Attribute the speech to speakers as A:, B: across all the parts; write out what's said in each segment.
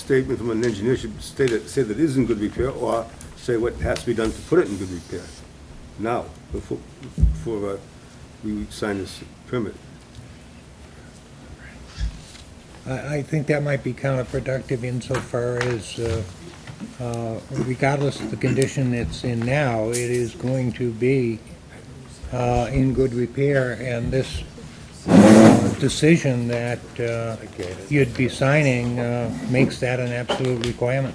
A: statement from an engineer should state it, say that it is in good repair, or say what has to be done to put it in good repair now, before, before uh, we sign this permit.
B: I, I think that might be counterproductive insofar as, uh, uh, regardless of the condition it's in now, it is going to be uh, in good repair, and this uh, decision that uh, you'd be signing uh, makes that an absolute requirement.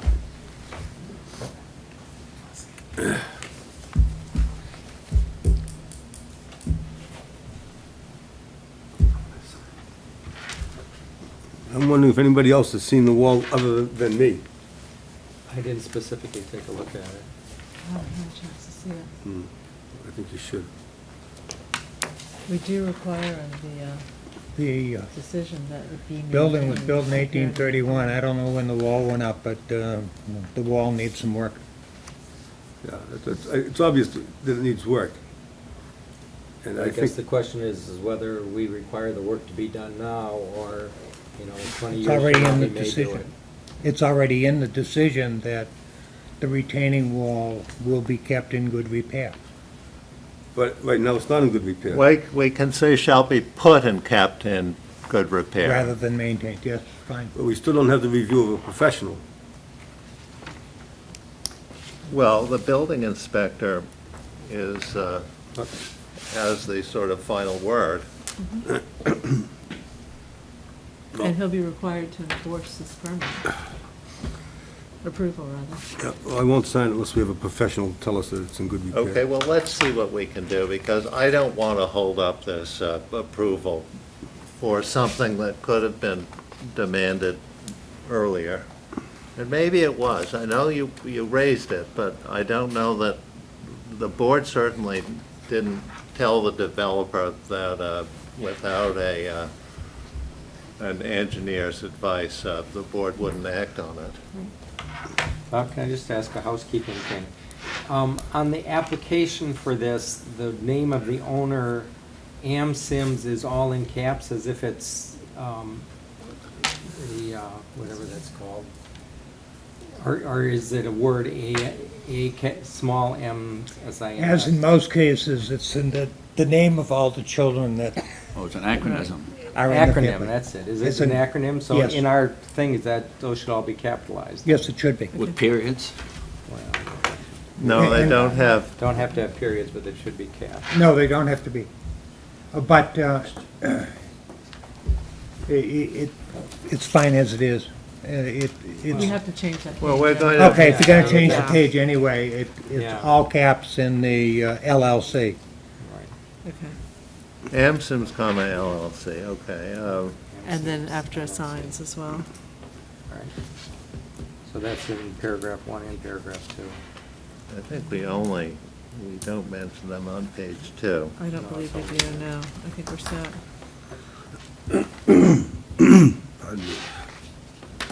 A: I'm wondering if anybody else has seen the wall other than me.
C: I didn't specifically take a look at it.
D: I haven't had a chance to see it.
A: I think you should.
D: We do require in the uh,
B: The uh,
D: decision that it be.
B: building was
D: maintained
B: built in
D: and
B: eighteen
D: repaired.
B: thirty-one, I don't know when the wall went up, but uh, the wall needs some work.
A: Yeah, that's- that's- I- it's obvious that it needs work. And I
C: I guess the
A: think,
C: question is, is whether we require the work to be done now, or, you know, in twenty
B: It's
C: years
B: already
C: from now,
B: in
C: we
B: the
C: may do
B: decision.
C: it.
B: It's already in the decision that the retaining wall will be kept in good repair.
A: but right now, it's not in good repair.
E: We, we can say shall be put and kept in good
B: rather
E: repair.
B: than maintained, yes, fine.
A: But we still don't have the review of a professional.
E: Well, the building inspector is, uh, has the sort of final word.
D: And he'll be required to enforce this permit. Approval, rather.
A: Yeah, well, I won't sign it unless we have a professional tell us that it's in good repair.
E: Okay, well, let's see what we can do, because I don't want to hold up this uh, approval for something that could have been demanded earlier. And maybe it was, I know you, you raised it, but I don't know that, the board certainly didn't tell the developer that uh, without a, uh, an engineer's advice, uh, the board wouldn't act on it.
C: Bob, Uh, can I just ask a housekeeping thing? Um, on the application for this, the name of the owner, Am Sims, is all in caps as if it's, um, the, uh, whatever that's called. Or, or is it a word, A, A, ca- small m, s i m?
B: As in most cases, it's in the, the name of all the children that
F: Oh, it's an acronym.
B: are in the
C: Acronym, eh?
B: family.
C: that's it. Is it
B: It's
C: an
B: an-
C: acronym? So
B: yes.
C: in our thing, is that, those should all be capitalized?
B: Yes, it should be.
F: With periods?
C: Well,
E: No, they don't have
C: Don't have to have periods, but it should be capped.
B: No, they don't have to be. Uh, But, uh, i- i- it, it's fine as it is. Uh, It,
D: We
B: it's,
D: have to change that.
E: Well,
D: page,
E: we're
D: yeah.
E: going to-
B: okay, if you're gonna change the
D: Yeah.
B: page anyway, it,
C: Yeah.
B: it's all caps in the uh, LLC.
C: Right.
D: Okay.
E: Amsims, comma LLC, okay. um,
D: And then after signs as well.
C: All right. So that's in paragraph one and paragraph two.
E: I think we only, we don't mention them on page two.
D: I don't believe we do, no. I think we're set.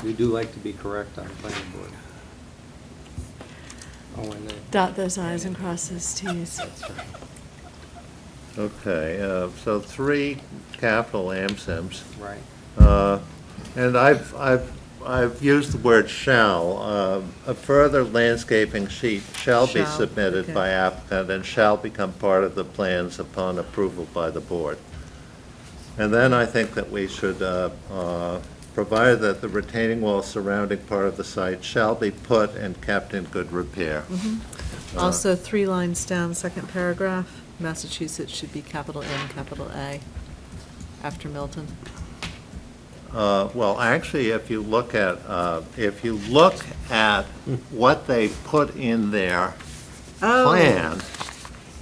C: We do like to be correct on the planning board. Oh, and the.
D: Dot those i's and cross those t's.
C: That's right.
E: Okay, uh, so three capital Amsims.
C: Right.
E: Uh, And I've, I've, I've used the word shall. Uh, A further landscaping sheet shall be
D: Shall,
E: submitted
D: okay.
E: by applicant and shall become part of the plans upon approval by the board. And then I think that we should, uh, uh, provided that the retaining wall surrounding part of the site shall be put and kept in good repair.
D: Mm-hmm. Also, three lines down, second paragraph, Massachusetts should be capital M, capital A, after Milton.
E: Uh, Well, actually, if you look at, uh, if you look at what they put in there
D: Oh.
E: plan,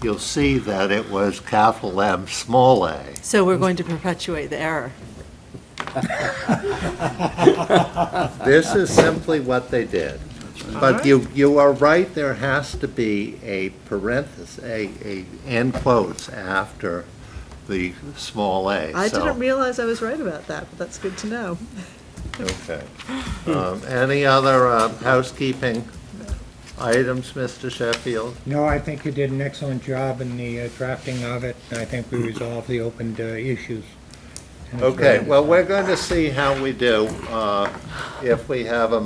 E: you'll see that it was capital M, small a.
D: So we're going to perpetuate the error.
E: This is simply what they did. But you, you are right, there has to be a parenthesis, a, a end quotes after the small a.
D: I
E: so-
D: didn't realize I was right about that, but that's good to know.
E: Okay. Um, Any other uh, housekeeping items, Mr. Sheffield?
B: No, I think you did an excellent job in the uh, drafting of it, and I think we resolved the open uh, issues. And it's very
E: Okay, well, we're going to see how we do, uh, if we have a